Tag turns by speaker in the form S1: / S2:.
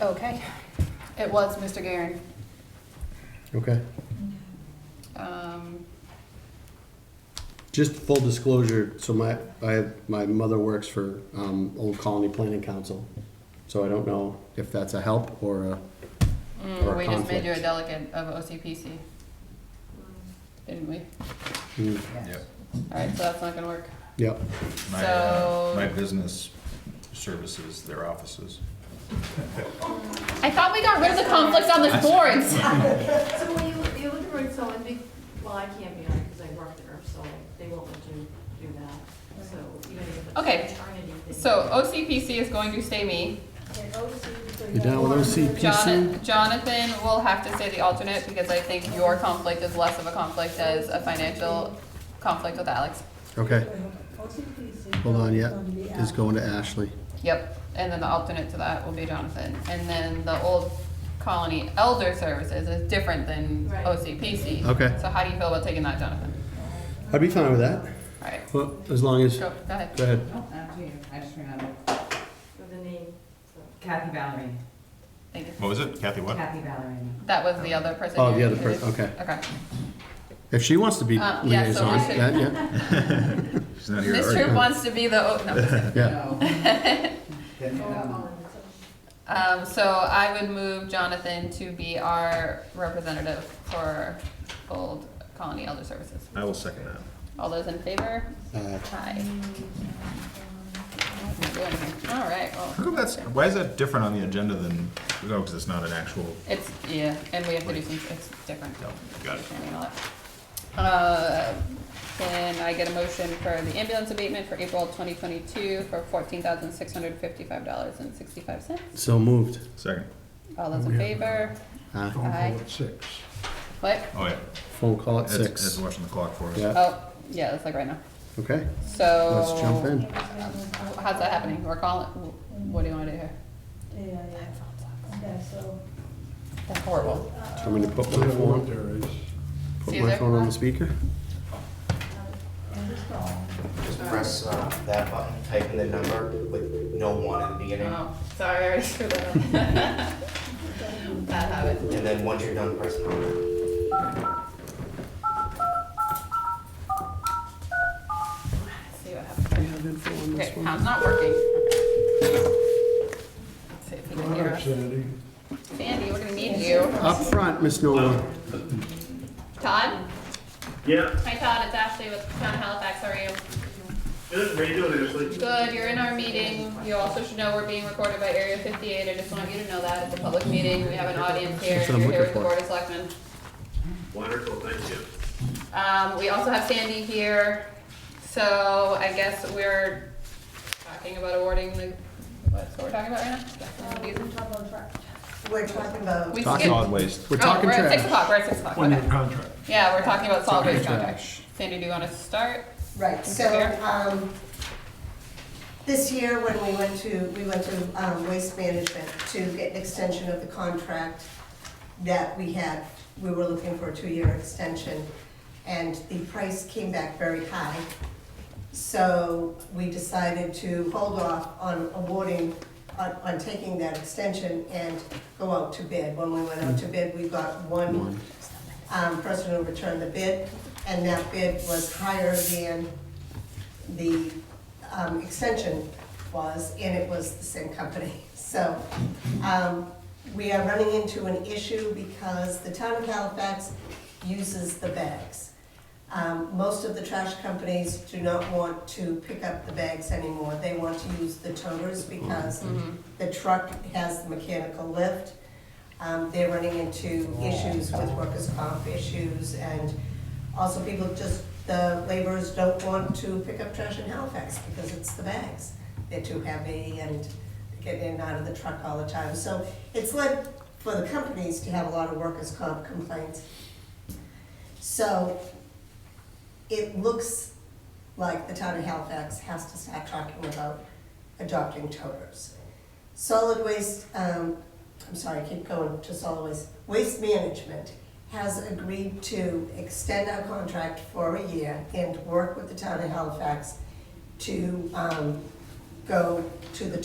S1: Okay, it was Mr. Garen.
S2: Okay.
S1: Um,
S2: Just full disclosure, so my, I, my mother works for, um, Old Colony Planning Council. So I don't know if that's a help or a,
S1: mm,
S2: Or a
S1: we just made you a
S2: conflict.
S1: delegate of OCPC. Didn't we?
S2: mm,
S3: Yep.
S1: Alright, so that's not gonna work.
S2: yep,
S3: My, uh,
S1: So-
S3: my business services, their offices.
S1: I thought we got rid of the conflicts on the boards.
S4: So will you, you look for it, so it'd be, well, I can't be on it because I work there, so they won't let you do that. So even if it's
S1: Okay.
S4: eternity thing.
S1: So OCPC is going to stay me.
S2: you down with OCPC?
S1: Jon- Jonathan will have to stay the alternate because I think your conflict is less of a conflict as a financial conflict with Alex.
S2: Okay,
S5: Hold on, yeah,
S2: is going to Ashley.
S1: Yep, and then the alternate to that will be Jonathan. And then the Old Colony Elder Services is different than
S4: Right.
S1: OCPC.
S2: Okay.
S1: So how do you feel about taking that, Jonathan?
S2: I'd be fine with that,
S1: All right,
S2: well, as long as,
S1: go,
S2: go
S1: go ahead.
S2: ahead.
S6: Oh, not to you. I just remembered.
S4: With the name, so.
S6: Kathy Valerie.
S1: Thank you.
S3: What was it? Kathy what?
S6: Kathy Valerie.
S1: That was the other person.
S2: Oh,
S1: you
S2: the other
S1: introduced.
S2: person, okay.
S1: Okay.
S2: If she wants to be
S1: Uh, yeah, so
S2: liaison,
S1: we should-
S2: that, yeah,
S3: She's not here.
S1: This
S3: already.
S1: troop wants to be the, oh, no.
S2: yeah,
S6: No.
S1: Um, so I would move Jonathan to be our representative for Old Colony Elder Services.
S3: I will second that.
S1: All those in favor?
S2: uh,
S1: Aye. All right,
S3: How
S1: well,
S3: come that's, why is that different on the agenda than, no, because it's not an actual,
S1: it's, yeah, and we have to do some, it's different.
S3: no, got it.
S1: and all that. Uh, Can I get a motion for the ambulance abatement for April twenty twenty-two for fourteen thousand six hundred fifty-five dollars and sixty-five cents?
S2: so moved.
S3: Second.
S1: All those in favor?
S2: Uh,
S1: Aye.
S7: six.
S1: What?
S3: Oh, yeah.
S2: phone call at
S3: Ed's- Ed's
S2: six,
S3: watching the clock for us.
S2: Yeah.
S1: Oh, yeah, that's like right now.
S2: okay,
S1: So.
S2: let's jump in.
S1: How's that happening? We're calling, what do you wanna do here?
S5: Yeah, yeah. Okay, so.
S1: That's horrible.
S5: uh,
S2: I'm gonna put
S7: So
S2: my
S7: the one
S2: phone,
S7: there is.
S2: put
S1: See
S2: my
S1: there?
S2: phone on the speaker,
S5: and this call.
S8: Just press uh, that button, type in the number with no one in the beginning,
S1: Oh, sorry, I already screwed that up.
S5: um,
S1: Bad habit.
S8: and then once you're done, press number.
S1: See what happens. Okay, pound's not working. Let's see if he can hear
S7: Product
S1: us.
S7: Sandy.
S1: Sandy, we're gonna need you.
S2: up front, Miss Nolan.
S1: Todd?
S9: Yeah,
S1: Hi Todd, it's Ashley with Town Halifax, how are you?
S9: good. How you doing, Ashley?
S1: Good, you're in our meeting. You also should know we're being recorded by Area fifty-eight. I just want you to know that. It's a public meeting. We have an audience here.
S2: That's what
S1: You're
S2: I'm
S1: here
S2: looking
S1: with the
S2: for.
S1: Board of Selectmen.
S9: Wonderful, thank you.
S1: Um, we also have Sandy here, so I guess we're talking about awarding the, what's what we're talking about right
S5: Uh,
S1: now?
S5: we can talk about track.
S6: We're talking about.
S1: We
S2: Talking
S1: skipped-
S3: Solid waste.
S2: We're
S1: Oh,
S2: talking
S1: we're at six
S2: trash.
S1: o'clock, we're at six o'clock,
S7: One-year
S1: okay.
S7: contract.
S1: Yeah, we're talking about solid waste contract.
S2: trash.
S1: Sandy, do you wanna start?
S10: Right,
S1: Is
S10: so,
S1: it fair?
S10: um, this year when we went to, we went to, um, Waste Management to get an extension of the contract that we had, we were looking for a two-year extension, and the price came back very high. So we decided to hold off on awarding, on, on taking that extension and go out to bid. When we went out to bid, we got one um, person who returned the bid, and that bid was higher than the um, extension was, and it was the same company. So um, we are running into an issue because the town of Halifax uses the bags. Um, Most of the trash companies do not want to pick up the bags anymore. They want to use the toters because the truck has the mechanical lift. Um, They're running into issues with workers' comp issues and also people just, the laborers don't want to pick up trash in Halifax because it's the bags. They're too heavy and get in and out of the truck all the time. So it's led for the companies to have a lot of workers' comp complaints. So it looks like the town of Halifax has to start talking about adopting toters. Solid waste, um, I'm sorry, I keep going to solid waste, waste management has agreed to extend our contract for a year and work with the town of Halifax to, um, go to the